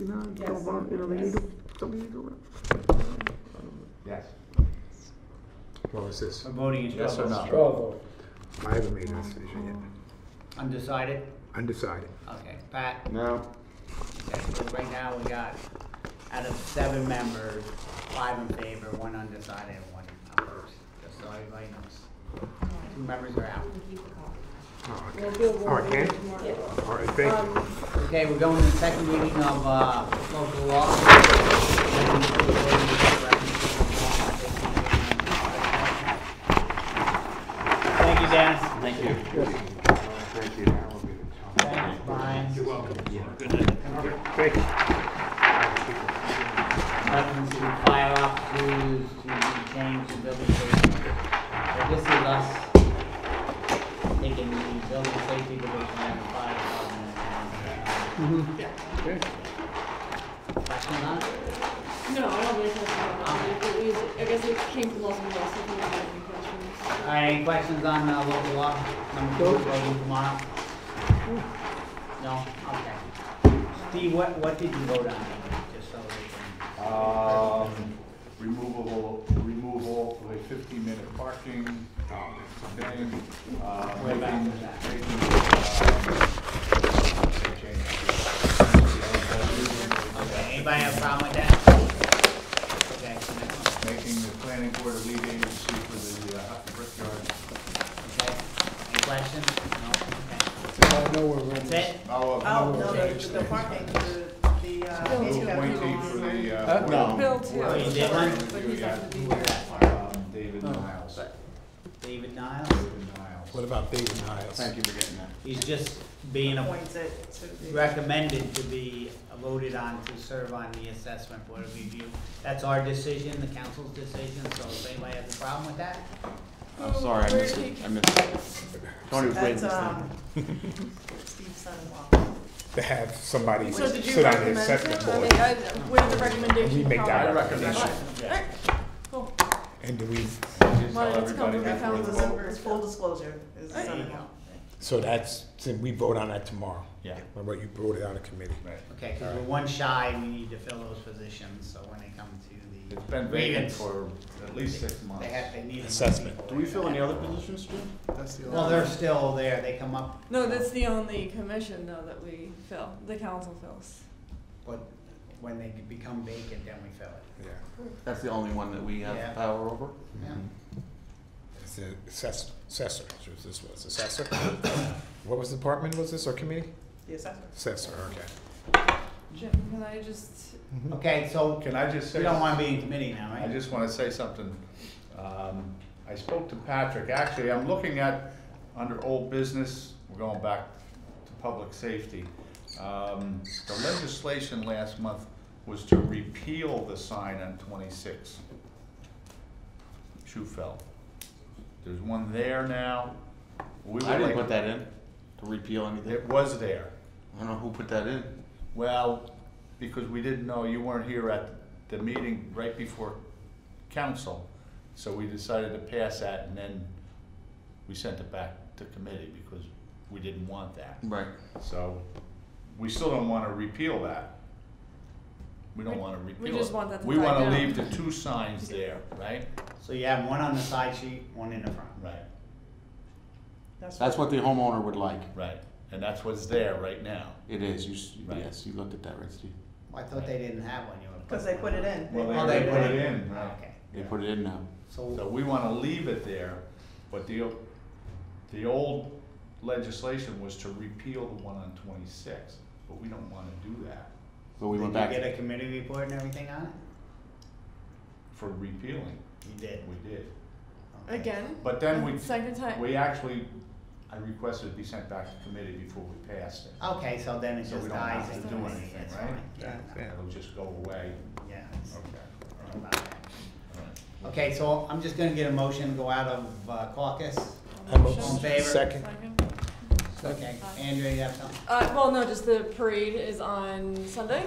You know, Yes. don't want, you know, we need to, don't we need to run? Yes. What was this? I'm voting is Yes or trouble. no? Straw vote. I haven't made a decision yet. Undecided? Undecided. Okay, Pat, No. okay, so right now we got, out of seven members, five in favor, one undecided, and one opposed, just so everybody knows. Two members are out. Oh, okay. We'll do a Oh, I warrant can? Yeah. All right, thank you. Um, Okay, we're going to the second reading of, uh, local law. Thank you, Dennis. Thank you. Thank you. That will be the time. Thanks, Brian. You're welcome. Thank you. Reference to fire off crews to be changed to building safety. So this is us taking the building safety division and the fire department. and- Mm-hmm. Questions on it? No, I don't really have a problem. It was, I guess it came from Los Angeles, if you have any questions. All right, any questions on uh, local law number two, voting tomorrow? No, okay. Steve, what, what did you vote on, just so we Um, removal, removal of a fifteen-minute parking thing. uh, Way back making- to that. making, um, change. can? Okay, anybody have a problem with that? Okay, next one, Making the planning board a lead agency for the uh, Hutton Brickyard. okay. Any questions? No, I know we're okay. ready. That's it? Oh, Oh, no, change the, the things. parking, the, the, uh. Bill Move too. Wayne for the, Huh? uh. No. Bill too. Oh, you did one? But he's not gonna be here. Um, David Oh. Niles. David Niles, David Niles. What about David Niles? Thank you for getting that. he's just being a- Appoints it to the, recommended to be voted on to serve on the assessment board of review. That's our decision, the council's decision, so if anybody has a problem with that, I'm sorry, I missed it. I missed it. Tony was that's, um, Steve's son-in-law. To have somebody So did you sit on the recommend assessment him? I board. mean, I, what is the recommendation? We make from- that I recommendation. All right, cool. And do we, Just Well, tell it's everybody complicated. before the vote. It's full disclosure, is the son-in-law. so that's, so we vote on that tomorrow. Yeah. What about you brought it out of committee? Right. okay, because we're one shy, and we need to fill those positions, so when they come to It's the been vacant grievance, for at least six months. they have, they need. Assessment. Do we fill any other positions, Jim? Well, they're still there, they come up. No, that's the only commission though that we fill, the council fills. But when they become vacant, then we fill it. Yeah. That's the only one that we Yeah. have power over? Mm-hmm. Yeah. It's the assess- assessor, that's what this was, assessor. What was the department was this, or committee? The assessor. Assessor, okay. Jim, can I just, Okay, so Can I just say? we don't want to be in committee now, I right? just want to say something. Um, I spoke to Patrick, actually, I'm looking at, under old business, we're going back to public safety. Um, The legislation last month was to repeal the sign on twenty-six. Schufel. There's one there now. We I would didn't like- put that in, to repeal anything. It was there. I don't know who put that in. Well, because we didn't know, you weren't here at the meeting right before council, so we decided to pass that and then we sent it back to committee because we didn't want that. Right. So, we still don't wanna repeal that. We don't wanna repeal it. we just want that to We die wanna down. leave the two signs there, right? So you have one on the side sheet, one in the front. Right, That's what the homeowner would like. right. And that's what's there right now. It is, you, s- Right. yes, you looked at that, right, Steve? I thought they didn't have one, you know. Because they put it in. Oh, they put it in, Okay. They put it in now. So So, we wanna leave it there, but the, o- the old legislation was to repeal the one on twenty-six, but we don't wanna do that But we did you went back. get a committee report and everything on it? for repealing, You did. we did. Okay. again? But then we, Second time? we actually, I requested it be sent back to committee before we passed it. Okay, so then it So we just don't dies have and to do dies, anything, that's right? fine. Yeah, It'll just go away. yeah. it's- Okay. it's all right, about that. all right. Okay, so I'm just gonna get a motion, to go out of uh, caucus. I'm Motion. All in favor? Second. Okay, Andrea, you have something? Uh, well, no, just the parade is on Sunday,